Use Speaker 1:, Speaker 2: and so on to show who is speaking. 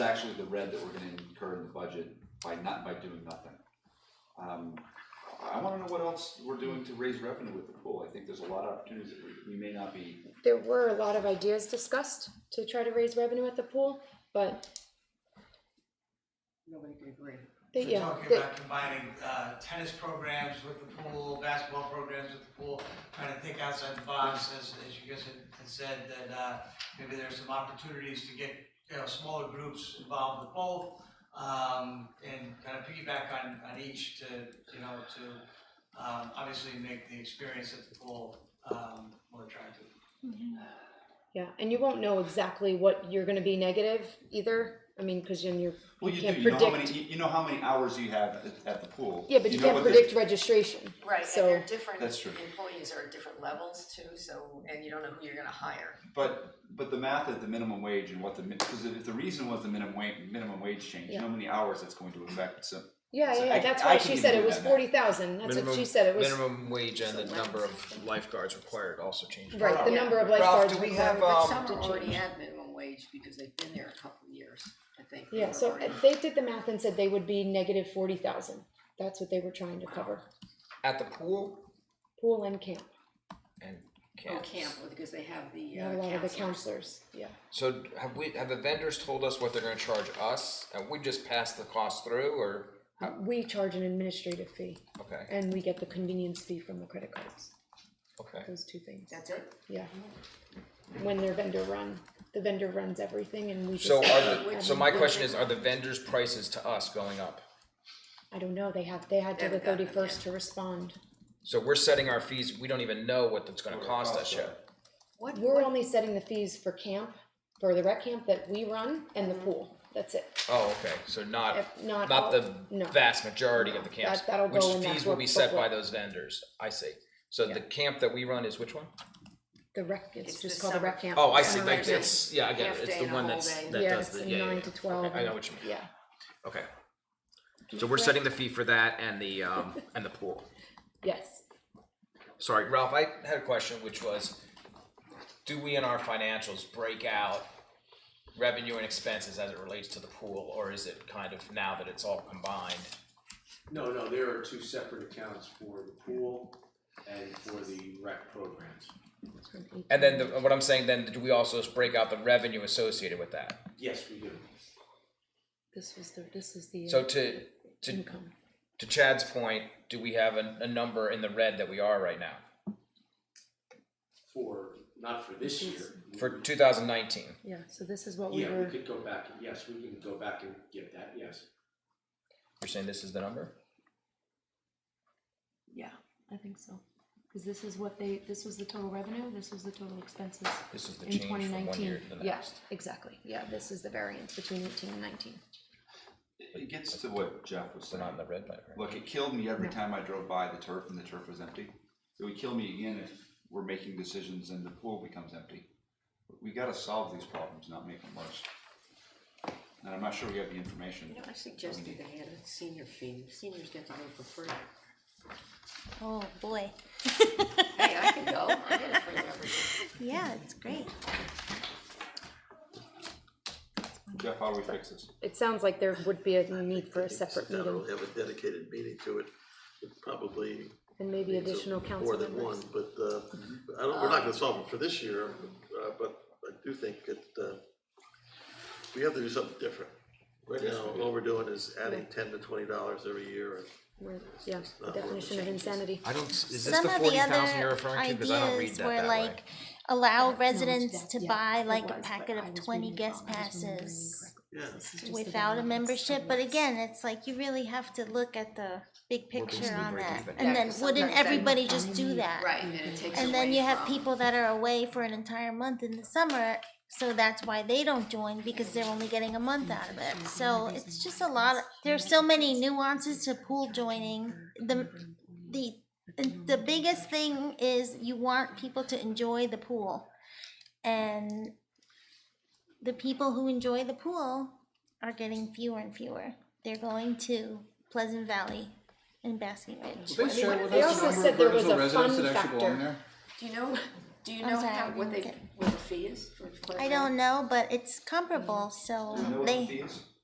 Speaker 1: actually the red that we're gonna incur in the budget by not, by doing nothing. Um, I wanna know what else we're doing to raise revenue with the pool, I think there's a lot of opportunities that we, we may not be,
Speaker 2: There were a lot of ideas discussed to try to raise revenue at the pool, but
Speaker 3: Nobody could agree.
Speaker 2: they,
Speaker 4: We're
Speaker 2: yeah,
Speaker 4: talking
Speaker 2: they-
Speaker 4: about combining uh, tennis programs with the pool, basketball programs with the pool, trying to think outside the box, as, as you guys had- had said, that uh, maybe there's some opportunities to get, you know, smaller groups involved with both, um, and kind of piggyback on, on each to, you know, to um, obviously make the experience at the pool um, more attractive.
Speaker 2: yeah, and you won't know exactly what you're gonna be negative either. I mean, cause then you're,
Speaker 1: well,
Speaker 2: you
Speaker 1: you do,
Speaker 2: can't
Speaker 1: you know how many,
Speaker 2: predict.
Speaker 1: you, you know how many hours you have at, at the pool.
Speaker 2: Yeah, but you
Speaker 1: know
Speaker 2: can't
Speaker 1: what the-
Speaker 2: predict registration,
Speaker 5: Right, and
Speaker 2: so,
Speaker 5: they're different,
Speaker 1: That's true.
Speaker 5: employees are at different levels too, so, and you don't know who you're gonna hire.
Speaker 1: But, but the math at the minimum wage and what the, because if the reason was the minimum wage, minimum wage change, you know how many hours that's going to affect, so.
Speaker 2: yeah,
Speaker 1: So
Speaker 2: yeah,
Speaker 1: I-
Speaker 2: yeah, that's
Speaker 1: I
Speaker 2: why
Speaker 1: can
Speaker 2: she
Speaker 1: even
Speaker 2: said
Speaker 1: do
Speaker 2: it was
Speaker 1: that now.
Speaker 2: forty thousand, that's what she said, it was,
Speaker 6: Minimum wage and the
Speaker 2: So
Speaker 6: number
Speaker 2: lifeguards.
Speaker 6: of lifeguards required also changed.
Speaker 2: right, the
Speaker 5: Yeah.
Speaker 2: number of
Speaker 6: Ralph,
Speaker 2: lifeguards
Speaker 6: do we
Speaker 2: required.
Speaker 6: have, um,
Speaker 5: Some are already
Speaker 2: change.
Speaker 5: at minimum wage because they've been there a couple of years, I think. they
Speaker 2: Yeah,
Speaker 5: were
Speaker 2: so
Speaker 5: already-
Speaker 2: uh, they did the math and said they would be negative forty thousand, that's what they were trying to cover,
Speaker 6: At the pool
Speaker 2: pool and camp,
Speaker 6: and
Speaker 5: Oh,
Speaker 6: camps.
Speaker 5: camp, because they have the
Speaker 2: not a
Speaker 5: uh,
Speaker 2: lot of the
Speaker 5: counselors.
Speaker 2: counselors, yeah.
Speaker 6: So have we, have the vendors told us what they're gonna charge us? And we just pass the cost through or,
Speaker 2: Uh, We charge an administrative fee.
Speaker 6: okay,
Speaker 2: And we get the convenience fee from the credit cards,
Speaker 6: okay.
Speaker 2: those two things,
Speaker 5: That's it?
Speaker 2: yeah. When they're vendor run, the vendor runs everything and we just.
Speaker 6: So are the,
Speaker 5: Would-
Speaker 6: so my
Speaker 5: would
Speaker 6: question
Speaker 5: they-
Speaker 6: is, are the vendors' prices to us going up?
Speaker 2: I don't know, they have, they had till the
Speaker 5: Haven't gotten it
Speaker 2: thirty-first to respond.
Speaker 6: So we're setting our fees, we don't even know what it's gonna
Speaker 1: What it
Speaker 6: cost us
Speaker 1: costs us.
Speaker 6: yet.
Speaker 5: What,
Speaker 2: We're
Speaker 5: what,
Speaker 2: only setting the fees for camp, for the rec camp that we run and the pool, that's it.
Speaker 6: Oh, okay, so not,
Speaker 2: If not all-
Speaker 6: not the
Speaker 2: no.
Speaker 6: vast majority of the camps,
Speaker 2: That- that'll
Speaker 6: which
Speaker 2: go in that
Speaker 6: fees will be
Speaker 2: workbook
Speaker 6: set by
Speaker 2: booklet.
Speaker 6: those vendors, I see. So the camp that we run is which one?
Speaker 2: The rec, it's
Speaker 5: It's
Speaker 2: just
Speaker 5: the
Speaker 2: called the rec
Speaker 5: summer-
Speaker 2: camp.
Speaker 6: Oh, I see,
Speaker 2: Summer
Speaker 6: like
Speaker 2: rec camp.
Speaker 6: it's, yeah, I get
Speaker 5: half
Speaker 6: it, it's
Speaker 5: day
Speaker 6: the
Speaker 5: and a
Speaker 6: one
Speaker 5: whole
Speaker 6: that's,
Speaker 5: day.
Speaker 6: that
Speaker 2: Yeah,
Speaker 6: does
Speaker 2: it's
Speaker 6: the,
Speaker 2: a
Speaker 6: yeah, yeah,
Speaker 2: nine
Speaker 6: yeah.
Speaker 2: to 12
Speaker 6: Okay, I know what you mean.
Speaker 2: Yeah,
Speaker 6: Okay. So we're setting the fee for that and the, um, and the pool.
Speaker 2: yes,
Speaker 6: Sorry, Ralph, I had a question, which was, do we in our financials break out revenue and expenses as it relates to the pool, or is it kind of now that it's all combined?
Speaker 7: No, no, there are two separate accounts for the pool and for the rec programs.
Speaker 6: And then the, what I'm saying then, do we also just break out the revenue associated with that?
Speaker 7: Yes, we do.
Speaker 2: this was the, this is the.
Speaker 6: So
Speaker 2: uh,
Speaker 6: to, to,
Speaker 2: Income,
Speaker 6: to Chad's point, do we have a, a number in the red that we are right now?
Speaker 7: For, not for this year.
Speaker 6: For two thousand nineteen?
Speaker 2: yeah, so this is what we
Speaker 7: Yeah, we
Speaker 2: were,
Speaker 7: could go back, and- yes, we can go back and get that, yes.
Speaker 6: You're saying this is the number?
Speaker 2: yeah, I think so. Cause this is what they, this was the total revenue, this was the total expenses.
Speaker 6: This is the
Speaker 2: in
Speaker 6: change
Speaker 2: twenty
Speaker 6: from one
Speaker 2: nineteen.
Speaker 6: year to the
Speaker 2: Yeah,
Speaker 6: next.
Speaker 2: exactly. Yeah, this is the variance between eighteen and nineteen.
Speaker 1: It gets to what Jeff was saying.
Speaker 6: We're not in the red by the way.
Speaker 1: Look, it killed me every time I drove by the turf and the turf was empty. It would kill me again if we're making decisions and the pool becomes empty. We gotta solve these problems, not make them worse. And I'm not sure we have the information.
Speaker 5: you know, I suggested they had a senior fee, seniors get to go for free.
Speaker 8: Oh boy.
Speaker 5: Hey, I can go, I get a free membership.
Speaker 8: Yeah, it's great.
Speaker 1: Jeff, how do we fix this?
Speaker 2: It sounds like there would be a need for a separate
Speaker 9: Now
Speaker 2: meeting
Speaker 9: We'll have a dedicated meeting to it, with probably.
Speaker 2: and maybe
Speaker 9: needs of
Speaker 2: additional council
Speaker 9: More than one,
Speaker 2: members.
Speaker 9: but, uh, I don't, we're not gonna solve it for this year, uh, but I do think that, uh, we have to do something different. Right now, all we're doing is adding ten to twenty dollars every year, and
Speaker 2: We're- Yeah, the
Speaker 9: not worth
Speaker 2: definition of insanity.
Speaker 6: I don't, is this
Speaker 8: Some
Speaker 6: the
Speaker 8: of the
Speaker 6: forty thousand you're
Speaker 8: other
Speaker 6: referring to? Cause I don't read
Speaker 8: ideas
Speaker 6: that
Speaker 8: were
Speaker 6: that way.
Speaker 8: like allow
Speaker 2: No,
Speaker 8: residents
Speaker 2: that-
Speaker 8: to
Speaker 2: yeah,
Speaker 8: buy
Speaker 2: it
Speaker 8: like
Speaker 2: was,
Speaker 8: a
Speaker 2: but
Speaker 8: packet
Speaker 2: I
Speaker 8: of
Speaker 2: was
Speaker 8: twenty
Speaker 2: reading it
Speaker 8: guest
Speaker 2: wrong. I was remembering
Speaker 8: passes
Speaker 2: incorrectly.
Speaker 9: yeah.
Speaker 2: This is just the
Speaker 8: without a
Speaker 2: variance
Speaker 8: membership,
Speaker 2: of
Speaker 8: but
Speaker 2: what's-
Speaker 8: again, it's like you really have to look at the big picture
Speaker 6: basically
Speaker 8: on
Speaker 6: break
Speaker 8: that.
Speaker 6: even.
Speaker 8: And
Speaker 5: Yeah,
Speaker 8: then
Speaker 5: 'cause
Speaker 8: wouldn't
Speaker 5: sometimes that-
Speaker 8: everybody just do that?
Speaker 5: Right, and then it takes away from.
Speaker 8: And then you have people that are away for an entire month in the summer, so that's why they don't join because they're only getting a month out of it. So it's just a lot, of- there's so many nuances to pool joining. The, the, the biggest thing is you want people to enjoy the pool. And the people who enjoy the pool are getting fewer and fewer. They're going to Pleasant Valley and Basking Ridge.
Speaker 10: They
Speaker 2: share
Speaker 10: share
Speaker 2: with
Speaker 10: with
Speaker 2: they us
Speaker 10: us
Speaker 2: the also
Speaker 10: the
Speaker 2: number
Speaker 10: number
Speaker 2: of
Speaker 10: of
Speaker 2: said there was
Speaker 10: residents
Speaker 2: residential a residents fun
Speaker 10: that actually go
Speaker 2: factor.
Speaker 10: in
Speaker 2: there?
Speaker 10: there?
Speaker 5: Do you know, do you
Speaker 8: I'm
Speaker 5: know
Speaker 8: sorry, I
Speaker 5: how, what
Speaker 8: didn't
Speaker 5: they,
Speaker 8: get-
Speaker 5: what the
Speaker 11: fee is for? for-
Speaker 5: I don't know, but it's comparable, so
Speaker 8: Do you know what the
Speaker 5: they,
Speaker 8: fee is?